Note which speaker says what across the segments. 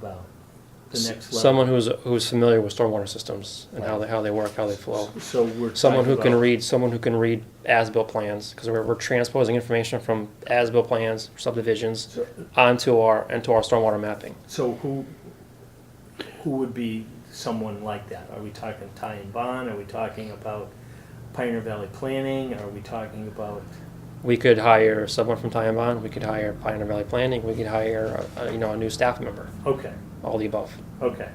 Speaker 1: about the next level.
Speaker 2: Someone who's, who's familiar with stormwater systems and how they, how they work, how they flow.
Speaker 1: So we're.
Speaker 2: Someone
Speaker 1: talking
Speaker 2: who can
Speaker 1: about-
Speaker 2: read, someone who can read as-built plans, because we're, we're transposing information from as-built plans, subdivisions,
Speaker 1: So-
Speaker 2: onto our, into our stormwater mapping.
Speaker 1: So who, who would be someone like that? Are we talking Ty and Bond? Are we talking about Pioneer Valley Planning? Are we talking about,
Speaker 2: We could hire someone from Tyambon, we could hire Pioneer Valley Planning, we could hire, uh, you know, a new staff member,
Speaker 1: okay,
Speaker 2: all the above.
Speaker 1: okay.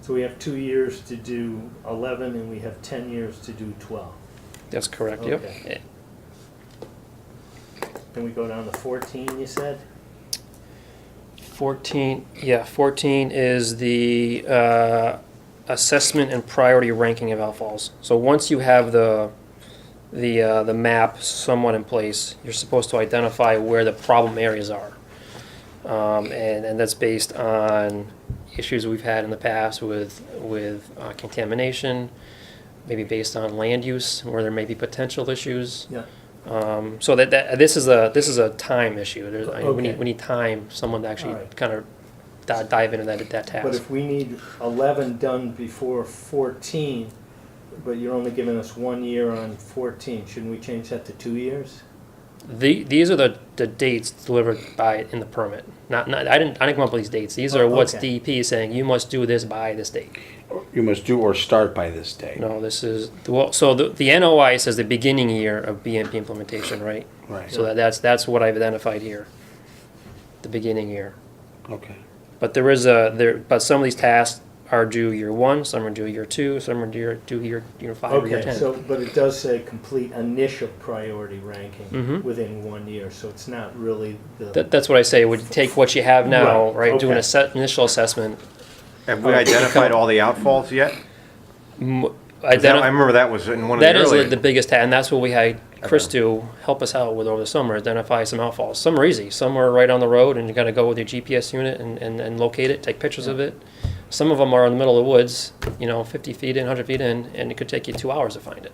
Speaker 1: So we have two years to do eleven and we have ten years to do twelve.
Speaker 2: That's correct, yep.
Speaker 1: Okay. Can we go down to fourteen, you said?
Speaker 2: 14, yeah, 14 is the uh, assessment and priority ranking of outfalls. So once you have the, the, uh, the map somewhat in place, you're supposed to identify where the problem areas are. Um, And, and that's based on issues we've had in the past with, with uh, contamination, maybe based on land use, where there may be potential issues.
Speaker 1: Yeah.
Speaker 2: Um, so that, that this is a this is a time issue. There's, I mean, we
Speaker 1: Okay.
Speaker 2: need we need time. Someone to actually
Speaker 1: Alright.
Speaker 2: kind of di- dive into that that
Speaker 1: But
Speaker 2: task.
Speaker 1: if we need eleven done before fourteen, but you're only giving us one year on fourteen, shouldn't we change that to two years?
Speaker 2: The, these are the, the dates delivered by in the permit. Not, not I didn't I didn't come up with these dates. These are
Speaker 1: Oh,
Speaker 2: what's
Speaker 1: okay.
Speaker 2: DEP saying you must do this by this date.
Speaker 3: You must do or start by this day.
Speaker 2: No, this is well. So the, the NOI says the beginning year of BMP implementation, right?
Speaker 3: Right,
Speaker 2: So that, that's that's what I've identified here. The beginning year.
Speaker 3: okay.
Speaker 2: But there is a there. But some of these tasks are due year one. Some are due year two. Some are due due year year five or year
Speaker 1: Okay,
Speaker 2: ten.
Speaker 1: so, but it does say complete initial priority ranking
Speaker 2: Mhm.
Speaker 1: within one year, so it's not really the,
Speaker 2: that, that's what I say. Would you take what you have now,
Speaker 1: Right,
Speaker 2: right? Do
Speaker 1: okay.
Speaker 2: an asse- initial assessment.
Speaker 4: Have we identified all the outfalls yet? 'Cause
Speaker 2: m-
Speaker 4: that- I
Speaker 2: Identi-
Speaker 4: remember that was in one of the
Speaker 2: that is
Speaker 4: earlier.
Speaker 2: the biggest task, and that's what we had Chris do help us out with over the summer. Identify some outfalls. Some are easy. Some are right on the road, and you got to go with your GPS unit and, and, and locate it, take pictures of it. Some of them are in the middle of the woods, you know, 50 feet in, 100 feet in, and it could take you two hours to find it.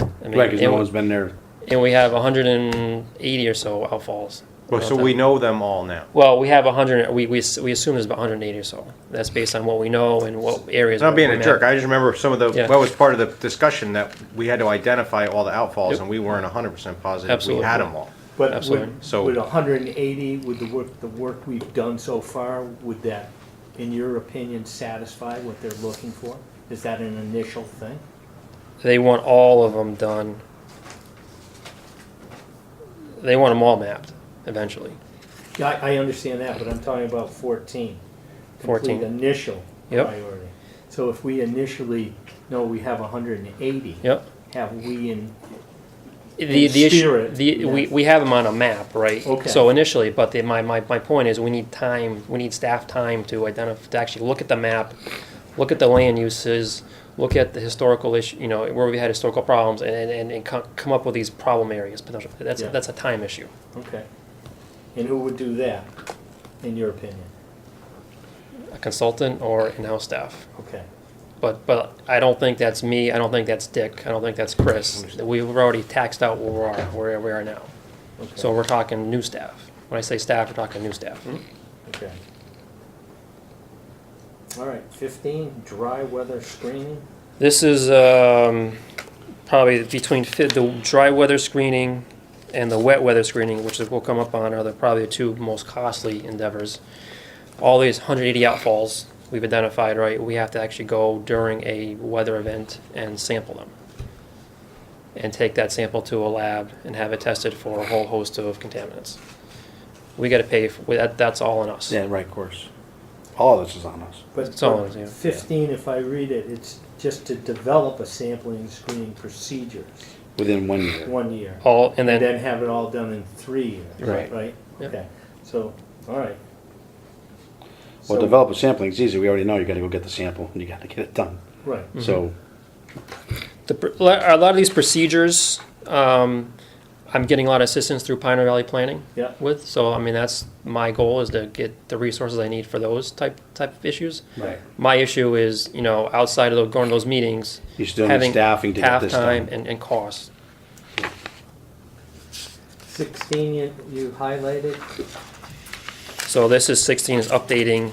Speaker 2: I mean,
Speaker 3: Right, because
Speaker 2: and,
Speaker 3: no one's been there.
Speaker 2: and we have 180 or so outfalls.
Speaker 4: Well, so we know them all now.
Speaker 2: Well, we have 100, we, we, s- we assume there's about 180 or so. That's based on what we know and what areas.
Speaker 4: It's not
Speaker 2: we're-
Speaker 4: being
Speaker 2: we're
Speaker 4: a
Speaker 2: map-
Speaker 4: jerk. I just remember some of the,
Speaker 2: Yeah.
Speaker 4: that was part of the discussion that we had to identify all the outfalls
Speaker 2: Yep.
Speaker 4: and we weren't hundred percent positive we
Speaker 2: Absolutely.
Speaker 4: had them all.
Speaker 1: but
Speaker 2: Absolutely.
Speaker 1: would,
Speaker 4: So-
Speaker 1: would hundred and eighty, with the work, the work we've done so far, would that, in your opinion, satisfy what they're looking for? Is that an initial thing?
Speaker 2: They want all of them done. They want them all mapped eventually.
Speaker 1: Yeah, I, I understand that, but I'm talking about fourteen. Complete
Speaker 2: 14.
Speaker 1: initial
Speaker 2: Yep.
Speaker 1: priority. So if we initially know we have hundred and eighty,
Speaker 2: Yep.
Speaker 1: have we in,
Speaker 2: The,
Speaker 1: And
Speaker 2: the issue,
Speaker 1: spirit,
Speaker 2: the, we,
Speaker 1: yeah.
Speaker 2: we have them on a map, right?
Speaker 1: Okay.
Speaker 2: So initially, but the, my, my, my point is we need time, we need staff time to identify, to actually look at the map, look at the land uses, look at the historical issue, you know, where we had historical problems and, and, and co- come up with these problem areas. potential- That's,
Speaker 1: Yeah.
Speaker 2: that's a time issue.
Speaker 1: okay. And who would do that, in your opinion?
Speaker 2: a consultant or in-house staff.
Speaker 1: Okay.
Speaker 2: But, but I don't think that's me, I don't think that's Dick, I don't think that's Chris. We've already taxed out where we are, where we are now.
Speaker 1: okay,
Speaker 2: So we're talking new staff. When I say staff, we're talking new staff.
Speaker 1: Okay. All right, fifteen, dry weather screening,
Speaker 2: This is, um, probably between fi- the dry weather screening and the wet weather screening, which is, we'll come up on, are the, probably the two most costly endeavors. All these hundred eighty outfalls we've identified, right, we have to actually go during a weather event and sample them. And take that sample to a lab and have it tested for a whole host of contaminants. We gotta pay, for that, that's all on us.
Speaker 3: Yeah, right, of course. All of this is on us.
Speaker 1: but
Speaker 2: It's all, yeah.
Speaker 1: but fifteen, if I read it, it's just to develop a sampling and screening procedures,
Speaker 3: Within one year.
Speaker 1: one year.
Speaker 2: All, and
Speaker 1: And
Speaker 2: then
Speaker 1: then have it all done in three years,
Speaker 2: Right.
Speaker 1: right?
Speaker 2: Yep.
Speaker 1: Okay, so, all right.
Speaker 3: Well,
Speaker 1: So-
Speaker 3: develop a sampling, it's easy, we already know, you gotta go get the sample, and you gotta get it done.
Speaker 1: Right,
Speaker 2: Mm-hmm.
Speaker 3: So,
Speaker 2: The, pr- a lot a lot of these procedures, um, I'm getting a lot of assistance through Pioneer Valley Planning
Speaker 1: yeah,
Speaker 2: with. So, I mean, that's my goal is to get the resources I need for those type type of issues.
Speaker 3: Right.
Speaker 2: My issue is, you know, outside of those, going to those meetings,
Speaker 3: you still need
Speaker 2: having
Speaker 3: staffing to get
Speaker 2: half
Speaker 3: this
Speaker 2: time
Speaker 3: done.
Speaker 2: and, and costs.
Speaker 1: sixteen you, you highlighted,
Speaker 2: So this is sixteen is updating